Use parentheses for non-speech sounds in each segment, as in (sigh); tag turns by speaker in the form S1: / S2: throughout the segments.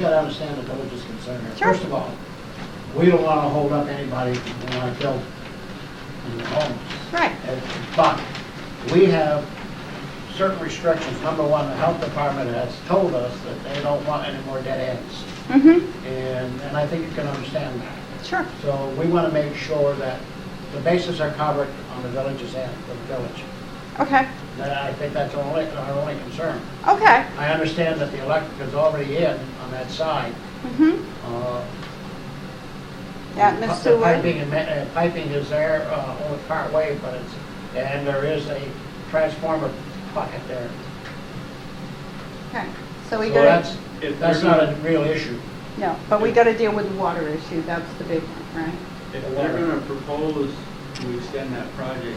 S1: that I understand the village's concern here.
S2: Sure.
S1: First of all, we don't want to hold up anybody who want to build in their homes.
S2: Right.
S1: And- But we have certain restrictions. Number one, the health department has told us that they don't want any more dead ends.
S2: Mm-hmm,
S1: And, and I think you can understand that.
S2: sure.
S1: So we want to make sure that the bases are covered on the village's end, for the village.
S2: Okay,
S1: That, I think that's our only, our only concern.
S2: okay.
S1: I understand that the electric is already in on that side.
S2: Mm-hmm.
S1: Uh,
S2: Yeah, Ms.
S1: pi- the Piping
S2: Seward.
S1: and, ma- uh, piping is there, uh, only part way, but it's, and there is a transformer pocket there.
S2: Okay, so we
S1: So
S2: gotta,
S1: that's,
S3: If
S1: that's
S3: they're
S1: not a
S3: gonna-
S1: real issue.
S2: no, but we gotta deal with the water issue, that's the big one, right?
S3: If they're gonna propose to extend that project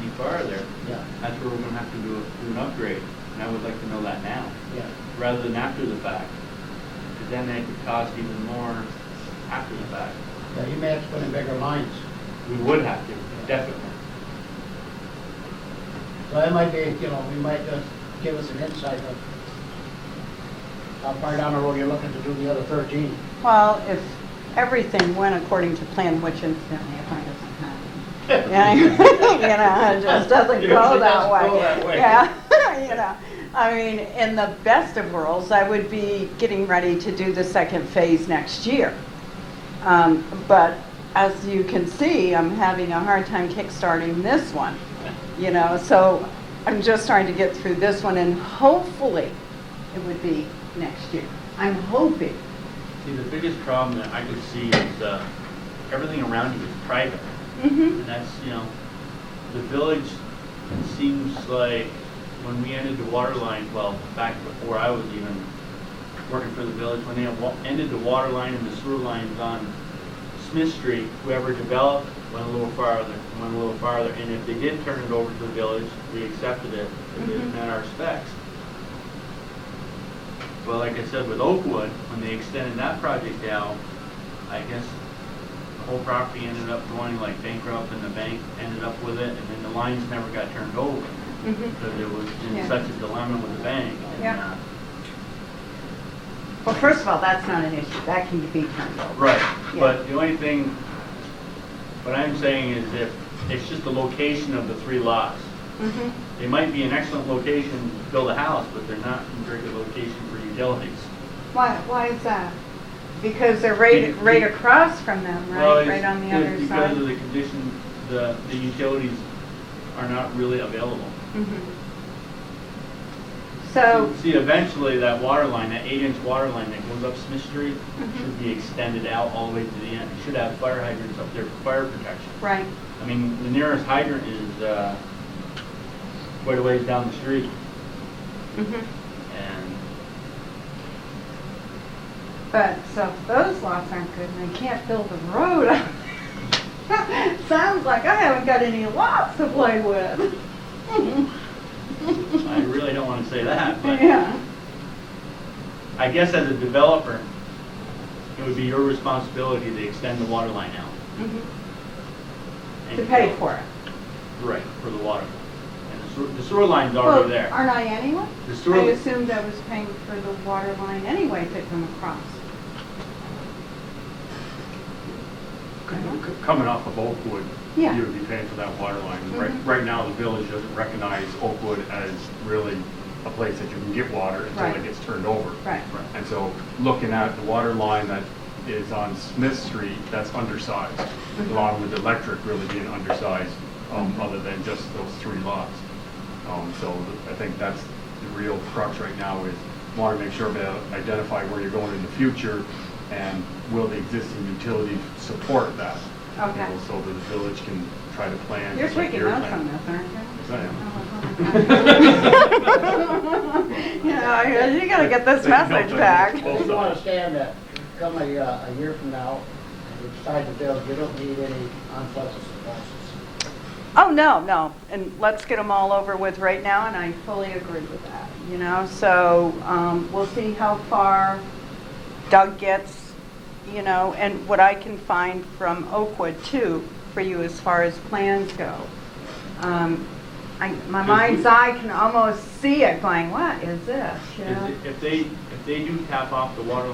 S3: any farther,
S1: Yeah,
S3: that's where we're gonna have to do, a- do an upgrade, and I would like to know that now,
S1: yeah.
S3: rather than after the fact. Because then it could cost even more after the fact.
S1: Yeah, you may have to put in bigger lines.
S3: We would have to, definitely.
S1: So that might be, you know, you might just give us an insight of how far down the road you're looking to do the other thirteen.
S2: Well, if everything went according to plan, which incidentally, I find doesn't happen. Yeah, (laughs) You know, it just doesn't
S3: It
S2: go
S3: usually
S2: that
S3: doesn't
S2: way.
S3: go that way.
S2: Yeah, (laughs) you know, I mean, in the best of worlds, I would be getting ready to do the second phase next year. Um, But as you can see, I'm having a hard time kickstarting this one, you know, so I'm just trying to get through this one and hopefully it would be next year. I'm hoping.
S3: See, the biggest problem that I could see is, uh, everything around you is private.
S2: Mm-hmm.
S3: And that's, you know, the village it seems like when we ended the water line, well, back before I was even working for the village, when they had wa- ended the water line and the sewer lines on Smith Street, whoever developed went a little farther, went a little farther. And if they did turn it over to the village, we accepted it, if it
S2: Mhm.
S3: met our specs. But like I said, with Oakwood, when they extended that project out, I guess the whole property ended up going like bankrupt and the bank ended up with it and then the lines never got turned over
S2: Mm-hmm.
S3: because it was in
S2: Yeah.
S3: such a dilemma with the bank. and,
S2: Yeah. Well, first of all, that's not an issue. That can be turned
S3: uh,
S2: over.
S3: Right,
S2: Yeah.
S3: but the only thing, what I'm saying is if, it's just the location of the three lots.
S2: Mhm.
S3: They might be an excellent location to build a house, but they're not a very good location for utilities.
S2: Why, why is that? Because they're right, right across from them,
S3: Well,
S2: right?
S3: it's-
S2: Right on the
S3: it's
S2: other
S3: Because of
S2: side?
S3: the condition, the, the utilities are not really available.
S2: Mhm. So,
S3: See, eventually, that water line, that eight-inch water line that goes up Smith Street,
S2: Mhm.
S3: should be extended out all the way to the end. It should have fire hydrants up there for fire protection.
S2: right,
S3: I mean, the nearest hydrant is uh, quite a ways down the street, Mm-hmm.
S2: mhm.
S3: and
S2: but, so if those lots aren't good and they can't build a road. (laughs) Sounds like I haven't got any lots to play with.
S3: Mm-hmm. I really don't want to say that, but
S2: (laughs) Yeah,
S3: I guess as a developer, it would be your responsibility to extend the water line out.
S2: Mhm.
S3: Mm-hmm. and-
S2: to pay for it.
S3: Right, for the water. And the sewer- the sewer line's
S2: Well,
S3: already there.
S2: Aren't I anyone?
S3: The sewer-
S2: I assumed I was paying for the water line anyway to come across.
S4: C- c- Coming off of Oakwood, you
S2: Yeah.
S4: would be paying for that water line. Right,
S2: Mhm.
S4: right now, the village doesn't recognize Oakwood as really a place that you can get water until
S2: Right.
S4: it gets turned over.
S2: Right.
S4: And so, looking at the water line that is on Smith Street, that's undersized, along with the electric really being undersized, um, other than just those three lots. Um, so th- I think that's the real crux right now is want to make sure to identify where you're going in the future and will the existing utility support that? you know,
S2: Okay.
S4: So that the village can try to plan.
S2: You're
S4: just like
S2: freaking
S4: your
S2: out
S4: plan.
S2: from this, aren't you?
S4: Yes, I am.
S2: (laughs) You know, you gotta get this
S4: They don't
S2: message
S4: do it.
S2: back.
S1: Well, you understand that come a, uh, a year from now, and you decide to build, you don't need any unpleasant surprises.
S2: Oh, no, no, and let's get them all over with right now, and I fully agree with that, you know? So, um, we'll see how far Doug gets, you know, and what I can find from Oakwood too, for you as far as plans go. Um, I, my mind's eye can almost see it going, what is this, you know?
S3: If if they, if they do tap off the water line